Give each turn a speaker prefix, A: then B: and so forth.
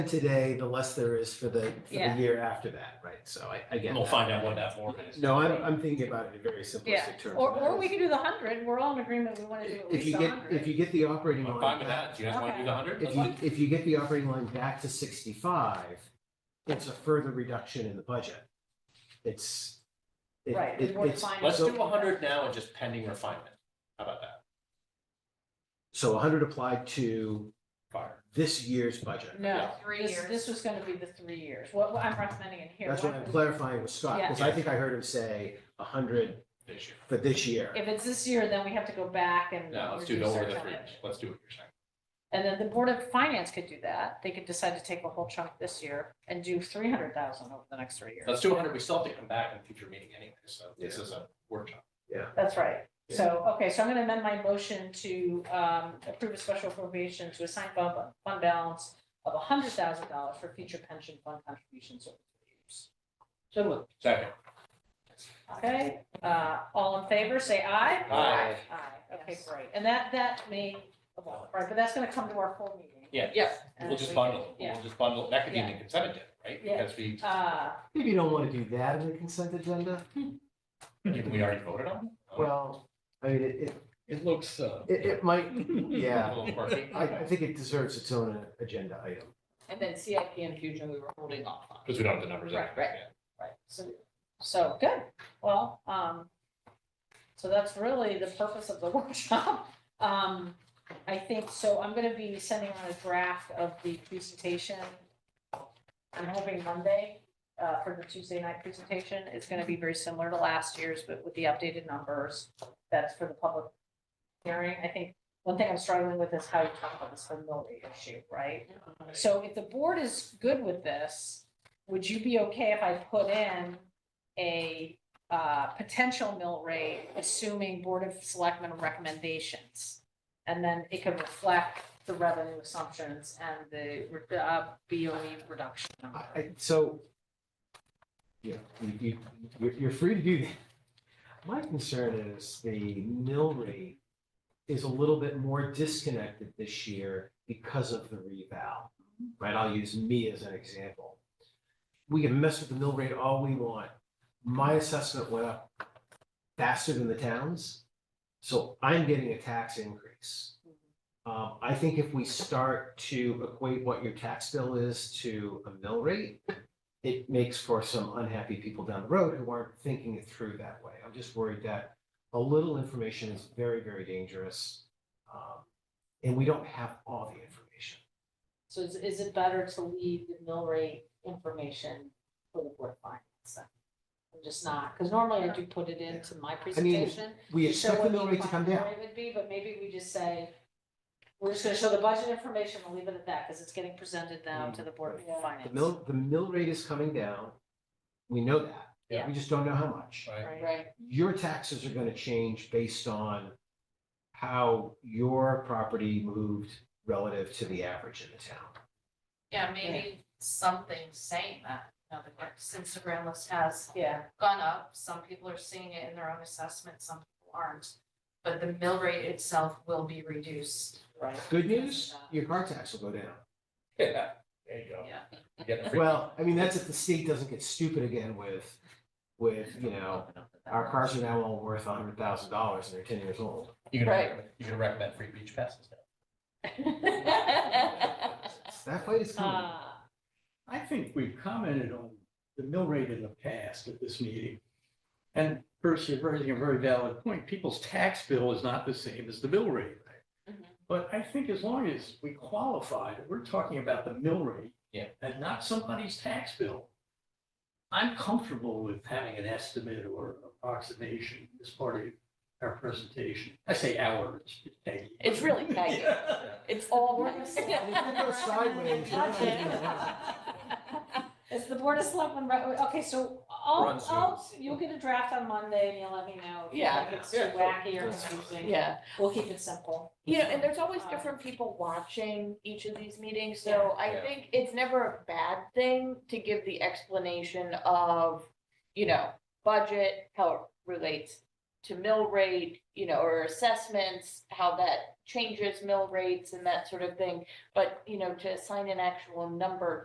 A: today, the less there is for the, for the
B: Yeah.
A: year after that, right? So I, I get.
C: We'll
A: that.
C: find out what that form is.
A: No, I'm, I'm thinking about it in very simplistic terms.
B: Or, or we could do the hundred, we're all in agreement, we wanna do at
A: If
B: least
A: you
B: a
A: get, if
B: hundred.
A: you get the operating
C: I'm
A: line.
C: fine with
A: back-
C: that. Do you guys want to do the hundred?
A: If you, if you get the operating line back to sixty-five, it's a further reduction in the budget. It's. it-
B: Right,
A: it-
B: we want to
A: it's-
B: find-
C: Let's
A: so-
C: do hundred now and just pending refinement. How about that?
A: So hundred applied to
C: Fire.
A: this year's budget.
B: No,
D: Three
B: this, this
D: years.
B: was gonna be the three years, what, what I'm recommending in here.
A: That's what I'm clarifying with Scott,
B: Yeah.
A: because I think I heard him say hundred
C: This year.
A: for this year.
B: If it's this year, then we have to go back and.
C: No, let's do
B: reduce
C: no more
B: our
C: than three.
B: tonnage.
C: years. Let's do what you're saying.
B: And then the Board of Finance could do that, they could decide to take a whole chunk this year and do three hundred thousand over the next three years.
C: Let's do hundred. We still have to come back in a future meeting anyway, so this is a workshop.
B: That's right. So, okay, so I'm gonna amend my motion to um approve a special appropriation to assign fund fund balance of hundred thousand dollars for future pension fund contributions over three years. So moved.
C: Second.
B: Okay, uh, all in favor, say aye.
C: Aye.
B: Aye, okay, great. And that, that may, evolve, right, but that's gonna come to our full meeting.
C: Yeah.
D: Yeah.
C: We'll just bundle. it.
B: Uh, Yeah.
C: We'll just bundle. it. That could be in the
B: Yeah.
C: consent agenda, right?
B: Yeah.
C: Because we,
B: Uh,
A: Maybe you don't want to do that in the consent agenda.
C: even we already voted on. it?
A: Well, I mean, it, it,
C: It looks, uh.
A: it, it might,
C: A
A: yeah,
C: little quirky.
A: I, I think it deserves its own uh, agenda item.
D: And then CIP infusion, we were holding off on.
C: Because we don't have the numbers.
B: Right,
C: anyway,
D: right.
C: yeah.
B: Right, so, so, good, well, um, so that's really the purpose of the workshop. Um, I think, so I'm gonna be sending out a draft of the presentation. I'm hoping Monday, uh, for the Tuesday night presentation, it's gonna be very similar to last year's, but with the updated numbers. That's for the public hearing, I think, one thing I'm struggling with is how you talk about this familiar issue, right? So if the board is good with this, would you be okay if I put in a uh, potential mill rate, assuming Board of Selectmen recommendations? And then it could reflect the revenue assumptions and the uh, BOE reduction
A: I,
B: number.
A: I, so. Yeah, you, you, you're, you're free to do that. My concern is the mill rate is a little bit more disconnected this year because of the reval. Right, I'll use me as an example. We can mess with the mill rate all we want. My assessment went up faster than the town's, so I'm getting a tax increase. Um, I think if we start to equate what your tax bill is to a mill rate, it makes for some unhappy people down the road who aren't thinking it through that way. I'm just worried that a little information is very, very dangerous. um, And we don't have all the information.
B: So is, is it better to leave the mill rate information for the Board of Finance? then? I'm just not, because normally I do put it into my presentation.
A: We
B: to show
A: expect the
B: what
A: mill rate to come
B: final
A: down.
B: rate Would be, but maybe we just say, we're just gonna show the budget information, we'll leave it at that, because it's getting presented now to the Board
D: Yeah.
B: of Finance.
A: Mm. The mill, the mill rate is coming down. We know that.
C: Yeah.
A: We just don't know how much.
C: Right.
B: Right,
A: your taxes are gonna change based on how your property moved relative to the average in the town.
D: Yeah, maybe something saying that, you know, the Instagram list has
B: yeah,
D: gone up, some people are seeing it in their own assessment, some people aren't. But the mill rate itself will be reduced.
B: right.
A: Good news, your car tax will go down.
C: Yeah, there you go.
D: Yeah.
C: You get a free-
A: Well, I mean, that's if the state doesn't get stupid again with, with, you know, our cars are now all worth a hundred thousand dollars and they're ten years old.
C: You can,
B: Right.
C: recommend- you can recommend free beach passes now.
A: That fight is coming.
B: Uh,
E: I think we've commented on the mill rate in the past at this meeting. And first, you're raising a very valid point. People's tax bill is not the same as the mill rate.
F: Mm-hmm.
D: Mhm.
E: But I think as long as we qualify that we're talking about the mill rate.
C: Yeah.
E: And not somebody's tax bill. I'm comfortable with having an estimate or approximation as part of our presentation. I say ours.
F: It's really Peggy. It's all
B: Board
F: Peggy.
B: of
A: And if it goes sideways, you're not gonna get it out.
B: Is the Board of Selectmen, right, okay, so I'll,
C: We're on Zoom.
B: I'll, you'll get a draft on Monday and you'll let me know. if you
F: Yeah.
B: think It's too wacky or confusing.
F: Yeah,
B: We'll keep it simple.
F: you know, and there's always different people watching each of these meetings, so I
C: Yeah.
F: think it's never a bad thing to give the explanation of, you know, budget, how it relates to mill rate, you know, or assessments, how that changes mill rates and that sort of thing. But, you know, to assign an actual number